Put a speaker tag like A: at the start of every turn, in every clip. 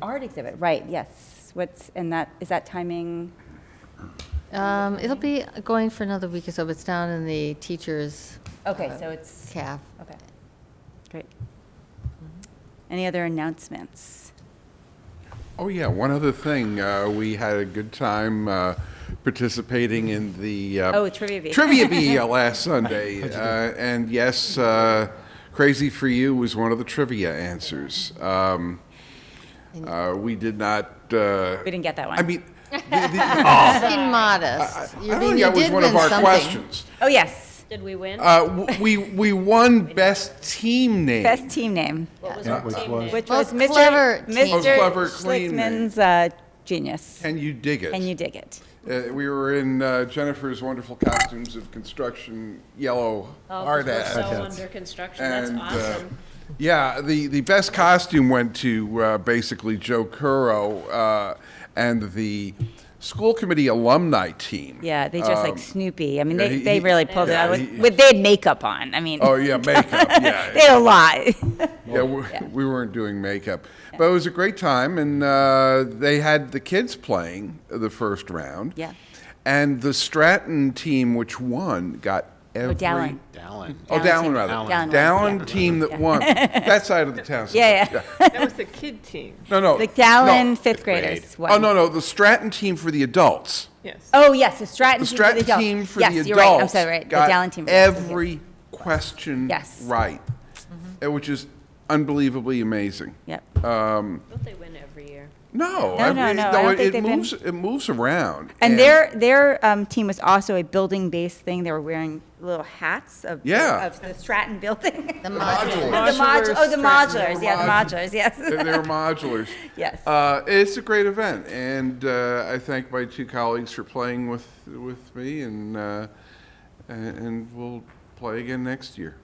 A: Art exhibit, right, yes. What's, and that, is that timing?
B: Um, it'll be going for another week or so, but it's down in the teachers'
A: Okay,
B: Uh,
A: so it's,
B: caf.
A: okay. Great. Any other announcements?
C: Oh, yeah, one other thing. Uh, we had a good time uh, participating in the. Uh,
A: Oh, Trivia Bee.
C: Trivia Bee last Sunday. Uh, and yes, uh, Crazy for You was one of the trivia answers. Um, uh, we did not. Uh,
A: We didn't get that one.
C: I mean, the, the,
B: Being modest.
C: I
B: You
C: don't
B: mean
C: think
B: you
C: that was
B: did
C: one of
B: win
C: our
B: something.
C: questions.
A: Oh, yes.
D: Did we win?
C: Uh, w- we, we won Best Team Name.
A: Best team name,
D: What was our team name?
A: which was
B: Most clever
A: Mr.
B: team.
C: Most
A: Mr.
C: clever, clean name.
A: Schlickman's uh, genius.
C: Can you dig it?
A: And you dig it.
C: Uh, we were in uh, Jennifer's wonderful costumes of construction yellow
D: Oh,
C: hard
D: 'cause we're
C: hats.
D: so under construction, that's
C: And, uh,
D: awesome.
C: yeah, the, the best costume went to uh, basically Joe Curro uh, and the school committee alumni team.
A: Yeah, they just like Snoopy. I mean,
C: Um, yeah,
A: they,
C: he-
A: they
C: he-
A: really pulled it
C: yeah,
A: out.
C: he-
A: With, they had makeup on. I mean,
C: Oh, yeah, makeup. Yeah,
A: they had a lot.
C: Yeah, we, we weren't doing makeup, but it was a great time, and uh, they had the kids playing the first round.
A: Yeah.
C: and the Stratton team, which won, got every.
A: Oh, Dallin.
E: Dallin.
C: Oh,
A: Dallin
C: Dallin
A: team.
C: rather.
A: Dallin.
C: Dallin
A: Dallin, yeah.
C: team that won. That side of the town.
A: Yeah, yeah.
F: That was the kid team,
C: No, no.
A: The Dallin
C: no.
A: fifth graders.
C: Oh no, no, the Stratton team for the adults.
F: yes.
A: Oh, yes, the Stratton team
C: The
A: for the
C: Stratton
A: adults.
C: team for
A: yes,
C: the adults.
A: you're right. I'm sorry, right. The
C: got
A: Dallin team. for the adults.
C: Every question
A: Yes. Mm-hmm.
C: right, uh, which is unbelievably amazing.
A: Yep.
C: Oh,
D: Don't they win every year?
A: No,
C: No, I
A: no,
C: mean,
A: no, I don't
C: it,
A: think
C: it
A: they've been-
C: moves. It moves around.
A: And their their um, team was also a building based thing. They were wearing little hats of
C: Yeah.
A: of the Stratton building.
B: The
A: The,
B: module.
A: modu- oh, the modulars. Yeah, the
C: Modulars.
A: modulars. Yes.
C: they they were modulars.
A: Yes.
C: Uh, it's a great event, and uh, I thank my two colleagues for playing with with me, and uh, and, and we'll play again next year.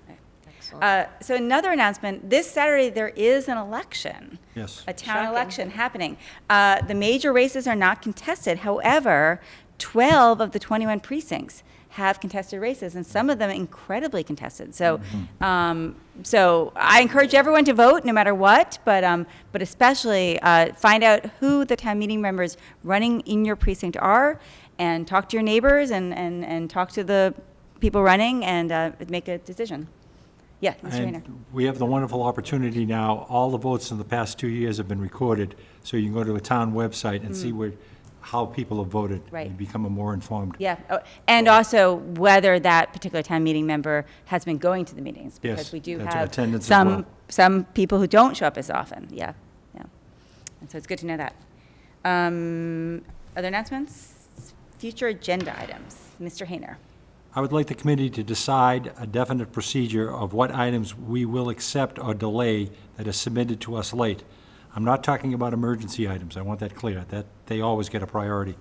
A: Uh, so another announcement, this Saturday, there is an election.
E: Yes.
A: A town election happening. Uh, The major races are not contested, however, 12 of the 21 precincts have contested races, and some of them incredibly contested. So, um, so I encourage everyone to vote, no matter what, but, um, but especially uh, find out who the town meeting members running in your precinct are, and talk to your neighbors, and, and, and talk to the people running, and uh, make a decision. Yeah, Mr. Rayner.
G: And we have the wonderful opportunity now, all the votes in the past two years have been recorded, so you can go to a town website and see where, how people have voted.
A: Right.
G: And become a more informed.
A: Yeah, oh, and also whether that particular town meeting member has been going to the meetings. Because
G: Yes,
A: we do
G: that's
A: have
G: attendance as
A: some,
G: well.
A: some people who don't show up as often, yeah, yeah. And so it's good to know that. Um, Other announcements? Future agenda items, Mr. Hayner.
G: I would like the committee to decide a definite procedure of what items we will accept or delay that are submitted to us late. I'm not talking about emergency items, I want that clear, that they always get a priority.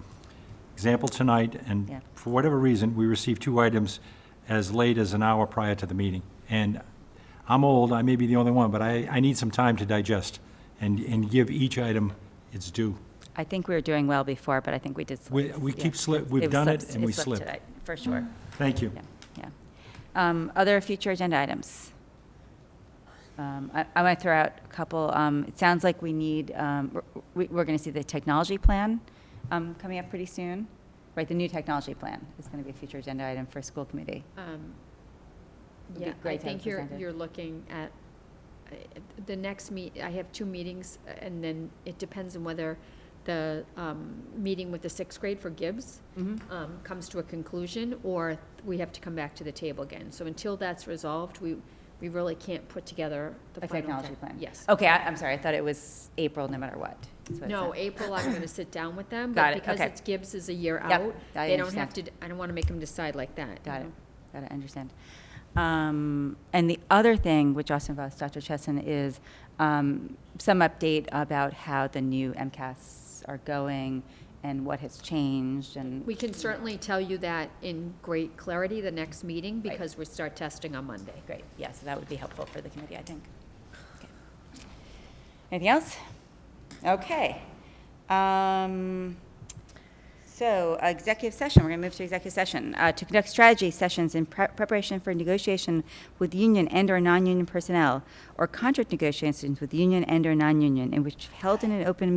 G: Example tonight,
A: Yeah.
G: and for whatever reason, we received two items as late as an hour prior to the meeting. And I'm old, I may be the only one, but I, I need some time to digest and, and give each item its due.
A: I think we were doing well before, but I think we did slip.
G: We, we keep slip, we've
A: It
G: done
A: slipped-
G: it and we
A: slipped
G: slip.
A: today, For sure,
G: Thank you.
A: yeah, yeah. Um, Other future agenda items? Um, I, I want to throw out a couple, um, it sounds like we need, um, we, we're going to see the technology plan, um, coming up pretty soon. Right, the new technology plan is going to be a future agenda item for school committee.
H: Um,
A: Would be
H: Yeah,
A: great
H: I
A: to have
H: think you're,
A: presented.
H: you're looking at, uh, the next meet, I have two meetings, uh, and then it depends on whether the um, meeting with the sixth grade for Gibbs
A: Mm-hmm.
H: um, comes to a conclusion, or we have to come back to the table again. So until that's resolved, we, we really can't put together the
A: A
H: final.
A: technology
H: tech-
A: plan?
H: Yes.
A: Okay, I, I'm sorry, I thought it was April, no matter what. That's what it
H: No,
A: said.
H: April, I'm gonna sit down with them,
A: Got
H: but
A: it,
H: because
A: okay.
H: it's Gibbs is a year
A: Yep,
H: out,
A: I
H: they don't have to,
A: understand.
H: d- I don't wanna make them decide like that. you
A: Got it,
H: know?
A: got it, I understand. Um, And the other thing, which also involves Dr. Chesson, is um, some update about how the new MCAS are going and what has changed and.
H: We can certainly tell you that in great clarity the next meeting,
A: Right.
H: because we start testing on Monday.
A: Great, yeah, so that would be helpful for the committee, I think. Okay. Anything else? Okay. Um, So, uh, executive session, we're going to move to executive session. Uh, To conduct strategy sessions in pre- preparation for negotiation with union and/or non-union personnel, or contract negotiations with union and/or non-union, in which held in an open